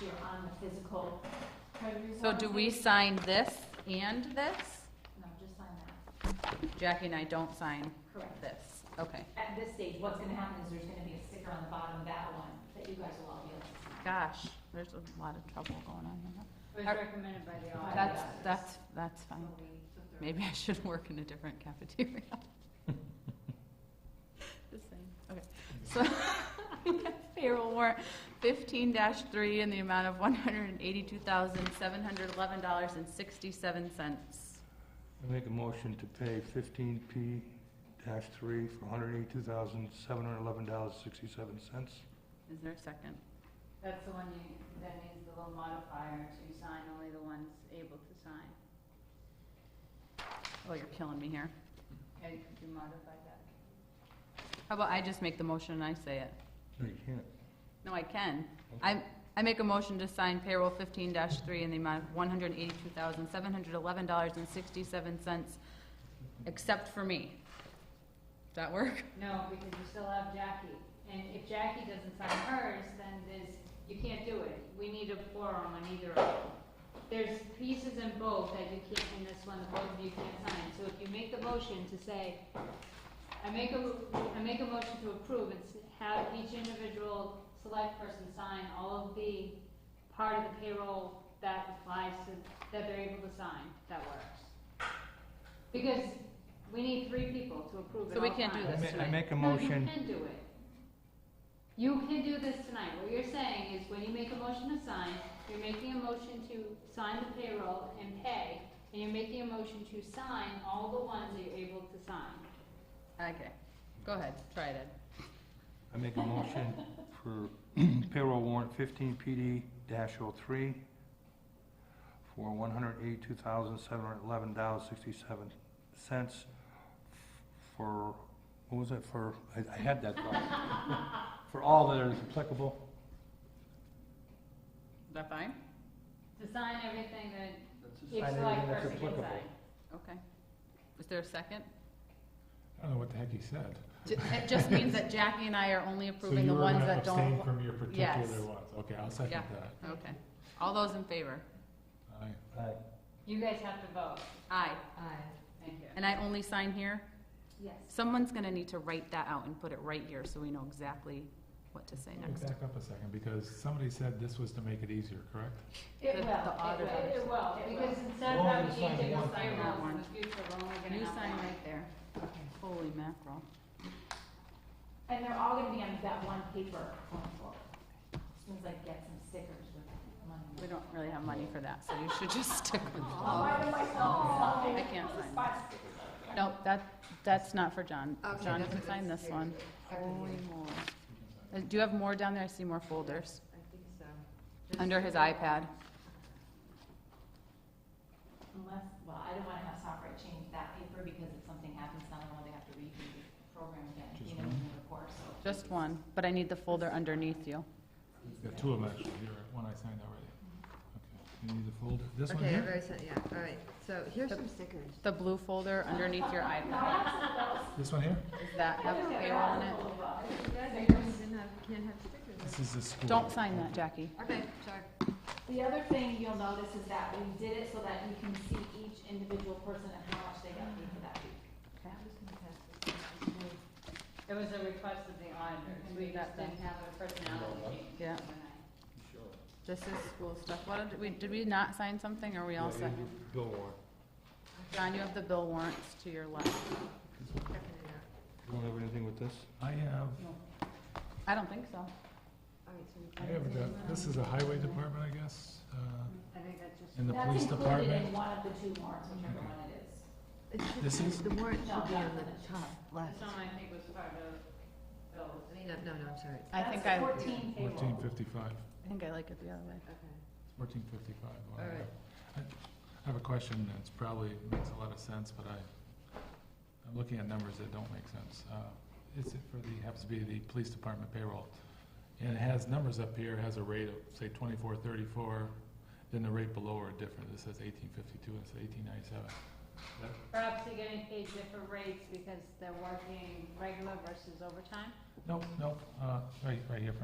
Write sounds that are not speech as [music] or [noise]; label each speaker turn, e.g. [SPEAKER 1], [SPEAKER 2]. [SPEAKER 1] here on the physical treasury
[SPEAKER 2] So do we
[SPEAKER 1] warrant.
[SPEAKER 2] sign this and this?
[SPEAKER 1] No, just sign that,
[SPEAKER 2] Jackie and I don't sign
[SPEAKER 1] correct.
[SPEAKER 2] this. Okay,
[SPEAKER 1] At this stage, what's gonna happen is there's gonna be a sticker on the bottom of that one that you guys will all be able to sign.
[SPEAKER 2] gosh, there's a lot of trouble going on here.
[SPEAKER 3] It was
[SPEAKER 2] Are-
[SPEAKER 3] recommended by the auditor.
[SPEAKER 2] That's, that's, that's fine. Maybe I should [laughs] work in a different cafeteria. [laughs] Just saying, okay. So, [laughs] payroll warrant fifteen three in the amount of one hundred and eighty-two thousand, seven hundred eleven dollars and sixty-seven cents.
[SPEAKER 4] I make a motion to pay fifteen P dash three for hundred eighty-two thousand, seven hundred eleven dollars, sixty-seven cents.
[SPEAKER 2] Is there a second?
[SPEAKER 3] That's the one you, that needs the little modifier to sign only the ones able to sign.
[SPEAKER 2] Oh, you're killing me here.
[SPEAKER 3] Okay, could you modify that?
[SPEAKER 2] How about I just make the motion and I say it?
[SPEAKER 4] No, you can't.
[SPEAKER 2] No, I can. I, I make a motion to sign payroll fifteen three in the amount of one hundred and eighty-two thousand, seven hundred eleven dollars and sixty-seven cents, except for me. Does that work?
[SPEAKER 3] No, because you still have Jackie, and if Jackie doesn't sign hers, then there's, you can't do it. We need a quorum on either of them. There's pieces in both that you can't, in this one, both of you can't sign, so if you make the motion to say, I make a, I make a motion to approve and s- have each individual select person sign all of the part of the payroll that applies to, that they're able to sign, that works. Because we need three people to approve it
[SPEAKER 2] So we
[SPEAKER 3] all
[SPEAKER 2] can't do
[SPEAKER 3] times.
[SPEAKER 2] this
[SPEAKER 4] I ma- I
[SPEAKER 2] tonight.
[SPEAKER 4] make a
[SPEAKER 3] No, you
[SPEAKER 4] motion,
[SPEAKER 3] can do it. You can do this tonight. What you're saying is when you make a motion to sign, you're making a motion to sign the payroll and pay, and you're making a motion to sign all the ones that you're able to sign.
[SPEAKER 2] Okay, go ahead, try it, Ed.
[SPEAKER 4] I make a motion for [clears throat] payroll warrant fifteen PD dash oh three for one hundred eighty-two thousand, seven hundred eleven dollars, sixty-seven cents for, what was it, for, I, I had that thought. For all that is applicable.
[SPEAKER 2] Is that fine?
[SPEAKER 3] To sign everything that each
[SPEAKER 4] Sign
[SPEAKER 3] select
[SPEAKER 4] everything that's
[SPEAKER 3] person can
[SPEAKER 4] applicable.
[SPEAKER 3] sign.
[SPEAKER 2] Okay. Is there a second?
[SPEAKER 5] I don't know what the heck he said.
[SPEAKER 2] Ju- It just means that Jackie and I are only approving the ones that
[SPEAKER 5] So you were
[SPEAKER 2] don't.
[SPEAKER 5] gonna abstain from your
[SPEAKER 2] Yes.
[SPEAKER 5] particular ones, okay, I'll second
[SPEAKER 2] Yeah.
[SPEAKER 5] that.
[SPEAKER 2] Okay. All those in favor?
[SPEAKER 5] Aye.
[SPEAKER 4] Aye.
[SPEAKER 3] You guys have to vote.
[SPEAKER 2] Aye.
[SPEAKER 3] Thank you.
[SPEAKER 2] And I only sign here?
[SPEAKER 1] Yes.
[SPEAKER 2] Someone's gonna need to write that out and put it right here so we know exactly what to say
[SPEAKER 5] Let me
[SPEAKER 2] next.
[SPEAKER 5] back up a second, because somebody said this was to make it easier, correct?
[SPEAKER 3] It
[SPEAKER 2] The-
[SPEAKER 3] will,
[SPEAKER 2] the
[SPEAKER 3] it will,
[SPEAKER 2] auditors.
[SPEAKER 3] it
[SPEAKER 1] It
[SPEAKER 3] will,
[SPEAKER 1] will.
[SPEAKER 3] because instead
[SPEAKER 5] We're
[SPEAKER 3] of
[SPEAKER 5] only
[SPEAKER 3] having
[SPEAKER 5] signing
[SPEAKER 3] each
[SPEAKER 5] one
[SPEAKER 3] of us sign
[SPEAKER 2] payroll
[SPEAKER 3] ones in
[SPEAKER 2] warrant.
[SPEAKER 3] the future, we're only gonna have one.
[SPEAKER 2] You sign right there. Holy mackerel.
[SPEAKER 1] And they're all gonna be on that one paper going forward. As soon as I get some stickers with money.
[SPEAKER 2] We don't really have money for that, so you should just stick with
[SPEAKER 1] I'll
[SPEAKER 2] that.
[SPEAKER 1] buy them myself.
[SPEAKER 2] I can't sign that. No, that, that's not for John. John can sign this one. Holy moly. Uh, Do you have more down there? I see more folders. I think so. Under his iPad.
[SPEAKER 1] Unless, well, I don't wanna have software change that paper because if something happens, not only they have to redo the program again, you know, in the report, so.
[SPEAKER 2] Just one, but I need the folder underneath you.
[SPEAKER 5] There are two of them actually, here, one I signed already. Okay, you need the folder, this one
[SPEAKER 6] Okay,
[SPEAKER 5] here?
[SPEAKER 6] I've already sent, yeah, all right, so here's some stickers.
[SPEAKER 2] The blue folder underneath your iPad. [laughs]
[SPEAKER 5] This one here?
[SPEAKER 2] Does that have payroll in it?
[SPEAKER 1] uh,
[SPEAKER 6] You didn't have, can't have stickers.
[SPEAKER 5] This is the school.
[SPEAKER 2] Don't sign that, Jackie.
[SPEAKER 6] Okay, sorry.
[SPEAKER 1] The other thing you'll notice is that we did it so that you can see each individual person and how much they got paid for that week.
[SPEAKER 3] It was a request of the auditors, we
[SPEAKER 2] That
[SPEAKER 3] just didn't have a personality change
[SPEAKER 2] Yeah.
[SPEAKER 3] tonight.
[SPEAKER 2] This is school stuff. What, did we, did we not sign something? Are we all set?
[SPEAKER 4] Bill warrant.
[SPEAKER 2] John, you have the bill warrants to your left.
[SPEAKER 6] Checking it out.
[SPEAKER 4] You don't have anything with this?
[SPEAKER 5] I have,
[SPEAKER 2] I don't think so.
[SPEAKER 6] All right, so we
[SPEAKER 5] I have, the- this is the highway department, I guess, uh,
[SPEAKER 3] I think that's just.
[SPEAKER 5] and the police department.
[SPEAKER 1] That's included in one of the two warrants, whichever one it is.
[SPEAKER 6] It's
[SPEAKER 5] This is-
[SPEAKER 6] just- The warrant should be
[SPEAKER 1] No, yeah.
[SPEAKER 6] on the top left.
[SPEAKER 3] This one I think was part of Bill's.
[SPEAKER 6] I mean, no, no, no, I'm sorry.
[SPEAKER 2] I think
[SPEAKER 1] That's
[SPEAKER 2] I, I
[SPEAKER 1] fourteen payroll.
[SPEAKER 5] Fourteen fifty-five,
[SPEAKER 2] think I like it the other way.
[SPEAKER 6] Okay.
[SPEAKER 5] fourteen fifty-five.
[SPEAKER 6] All right.
[SPEAKER 5] I I have a question that's probably makes a lot of sense, but I, I'm looking at numbers that don't make sense. Uh, It's for the, happens to be the police department payroll. And it has numbers up here, has a rate of, say, twenty-four thirty-four, then the rate below are different. It says eighteen fifty-two and it says eighteen ninety-seven.
[SPEAKER 3] Perhaps they're getting paid different rates because they're working regular versus overtime?
[SPEAKER 5] Nope, nope, uh, right, right here, Frank.